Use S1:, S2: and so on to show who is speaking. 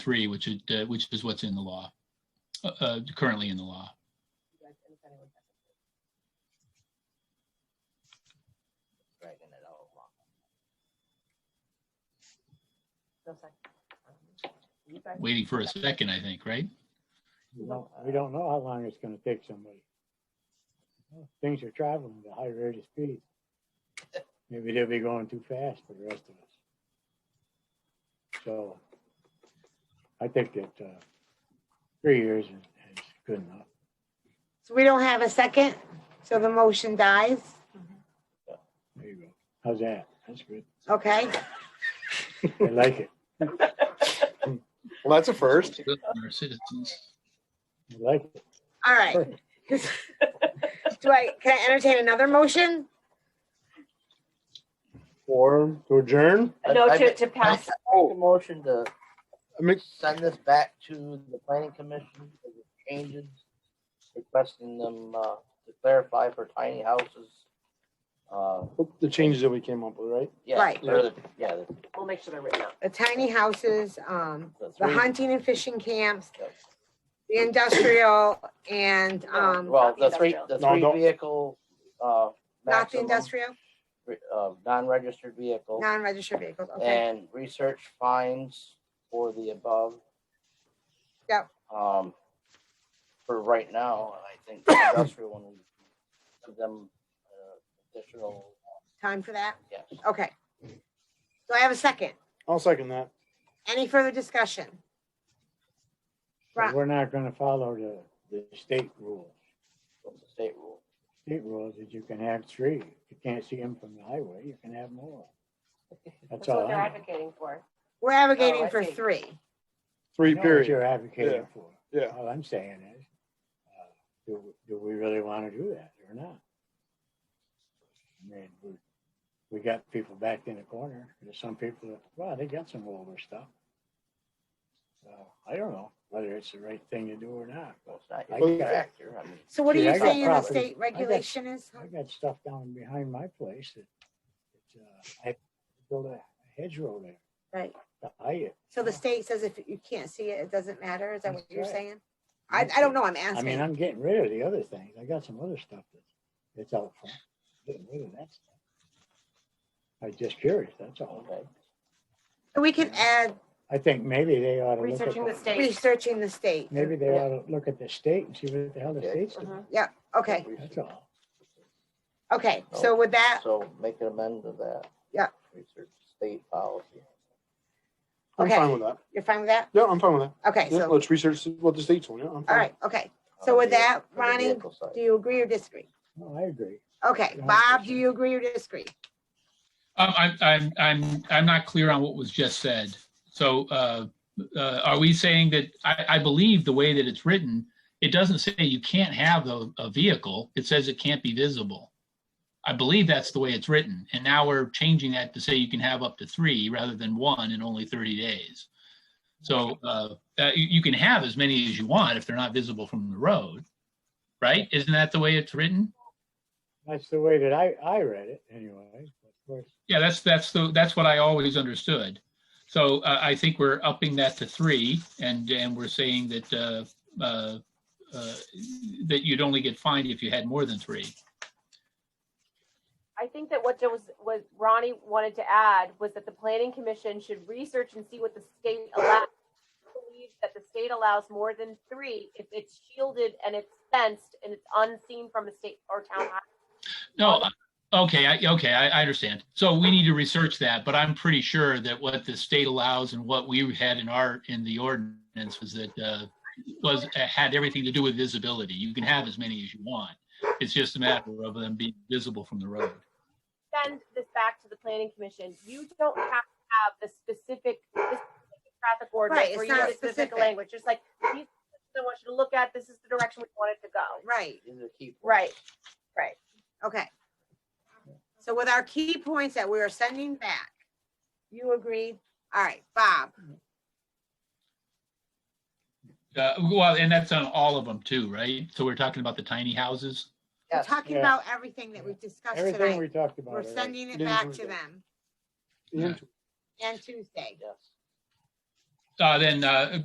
S1: three, which is, uh, which is what's in the law, uh, uh, currently in the law.
S2: Right, and if anyone has it. Dragging it all along. No second. You second?
S1: Waiting for a second, I think, right?
S3: We don't, we don't know how long it's gonna take somebody. Things are traveling at a high rate of speed. Maybe they'll be going too fast for the rest of us. So I think that, uh, three years is, is good enough.
S4: So we don't have a second, so the motion dies.
S3: There you go. How's that? That's good.
S4: Okay,
S3: I like it.
S5: Well, that's a first.
S1: Our citizens.
S3: I like it.
S4: all right. Do I, can I entertain another motion?
S3: Or to adjourn?
S2: No,
S6: I- oh,
S2: to, to pass,
S6: Make a motion to
S5: I mean,
S6: send this back to the planning commission for the changes, requesting them, uh, to clarify for tiny houses. Uh,
S5: the changes that we came up with, right?
S6: yeah.
S4: Right.
S6: they're the- Yeah, the-
S2: we'll make sure they're written out.
S4: The tiny houses, um,
S6: the
S4: the
S6: three-
S4: hunting and fishing camps,
S6: Yep.
S4: the industrial and, um,
S6: Well, the three, the
S5: No,
S6: three
S5: don't-
S6: vehicle, uh.
S4: not the
S6: maximum,
S4: industrial,
S6: Uh, non-registered vehicle
S4: non-registered vehicles, okay.
S6: and research fines for the above.
S4: Yep.
S6: Um, for right now, I think the industrial one, we give them uh, additional,
S4: Time for that,
S6: yes.
S4: okay. Do I have a second?
S5: I'll second that.
S4: Any further discussion?
S3: But
S4: Right.
S3: We're not gonna follow the, the state rules.
S6: What's the state rule?
S3: state rules is you can have three. If you can't see them from the highway, you can have more. That's
S2: That's what
S3: all
S2: they're
S3: I know.
S2: advocating for.
S4: We're
S2: Oh,
S4: advocating
S2: I
S4: for
S2: see.
S4: three.
S3: I
S5: Three
S3: know What
S5: period.
S3: you're advocating
S5: Yeah.
S3: for.
S5: Yeah.
S3: All I'm saying is, uh, do, do we really want to do that or not? I mean, we, we got people backed in the corner. There's some people that, well, they got some older stuff. So I don't know whether it's the right thing to do or not, but
S6: Well, it's not
S3: I
S6: your
S3: got-
S6: factor, I mean,
S4: So what are
S3: See,
S4: you
S3: I got
S4: saying the
S3: property.
S4: state regulation is?
S3: I got stuff down behind my place that, that uh, I built a hedgerow there.
S4: Right.
S3: to hide it.
S4: So the state says if you can't see it, it doesn't matter? Is that what
S3: Oh. That's
S4: you're
S3: right.
S4: saying? I, I don't know, I'm
S3: I mean,
S4: asking.
S3: I'm getting rid of the other things. I got some other stuff that's, that's out front. Getting rid of that stuff. I'm just curious, that's all.
S6: okay.
S4: We can add
S3: I think maybe they ought to look at.
S2: Researching the state.
S4: researching the state.
S3: Maybe they
S2: Yeah.
S3: ought to look at the state and see what the hell the
S6: Yeah.
S3: state's doing.
S2: Mhm.
S4: Okay,
S3: That's all.
S4: okay.
S3: Oh.
S4: So with that,
S6: So make an amend to that.
S4: Yeah.
S6: Research state policy.
S5: I'm
S4: Okay.
S5: fine with that.
S4: you're fine with that?
S5: Yeah, I'm fine with that.
S4: Okay,
S5: Yeah,
S4: so,
S5: let's research what the state's on. Yeah, I'm fine.
S4: all right, okay.
S3: Oh,
S6: on
S4: So
S6: the
S4: with
S6: vehi-
S4: that,
S6: for the
S4: Ronnie,
S6: vehicle side.
S4: do you agree or disagree?
S3: No, I agree.
S4: Okay, Bob, do you agree or disagree?
S1: Um, I'm, I'm, I'm, I'm not clear on what was just said. So, uh, uh, are we saying that, I, I believe the way that it's written, it doesn't say you can't have a, a vehicle. It says it can't be visible. I believe that's the way it's written. And now we're changing that to say you can have up to three rather than one in only 30 days. So, uh, uh, you, you can have as many as you want if they're not visible from the road, right? Isn't that the way it's written?
S3: That's the way that I, I read it anyway. Of course,
S1: Yeah, that's, that's the, that's what I always understood. So uh, I think we're upping that to three and, and we're saying that, uh, uh, uh, that you'd only get fined if you had more than three.
S2: I think that what Joe was, was Ronnie wanted to add was that the planning commission should research and see what the state allows. I believe That the state allows more than three if it's shielded and it's fenced and it's unseen from a state or town. highway.
S1: No, uh, okay, I, okay, I, I understand. So we need to research that, but I'm pretty sure that what the state allows and what we had in our, in the ordinance was that, uh, was, had everything to do with visibility. You can have as many as you want. It's just a matter of them being visible from the road.
S2: Send this back to the planning commission. You don't have to have the specific, the specific traffic
S4: Right,
S2: ordinance
S4: it's
S2: where you
S4: not
S2: have a specific
S4: specific.
S2: language. Just like, these, I want you to look at, this is the direction we want it to go.
S4: Right,
S6: These are the key points.
S2: Right.
S4: okay. So with our key points that we are sending back, you agree? All right, Bob,
S1: Uh, well, and that's on all of them too, right? So we're talking about the tiny houses.
S4: we're
S6: Yes.
S4: talking
S3: Yeah.
S4: about everything that we've discussed
S3: everything we
S4: tonight.
S3: talked about.
S4: We're
S3: already.
S4: sending it
S5: Didn't
S4: back
S5: include
S4: to
S5: that.
S4: them
S5: Yeah.
S4: and Tuesday.
S6: Yes.
S1: uh, then uh,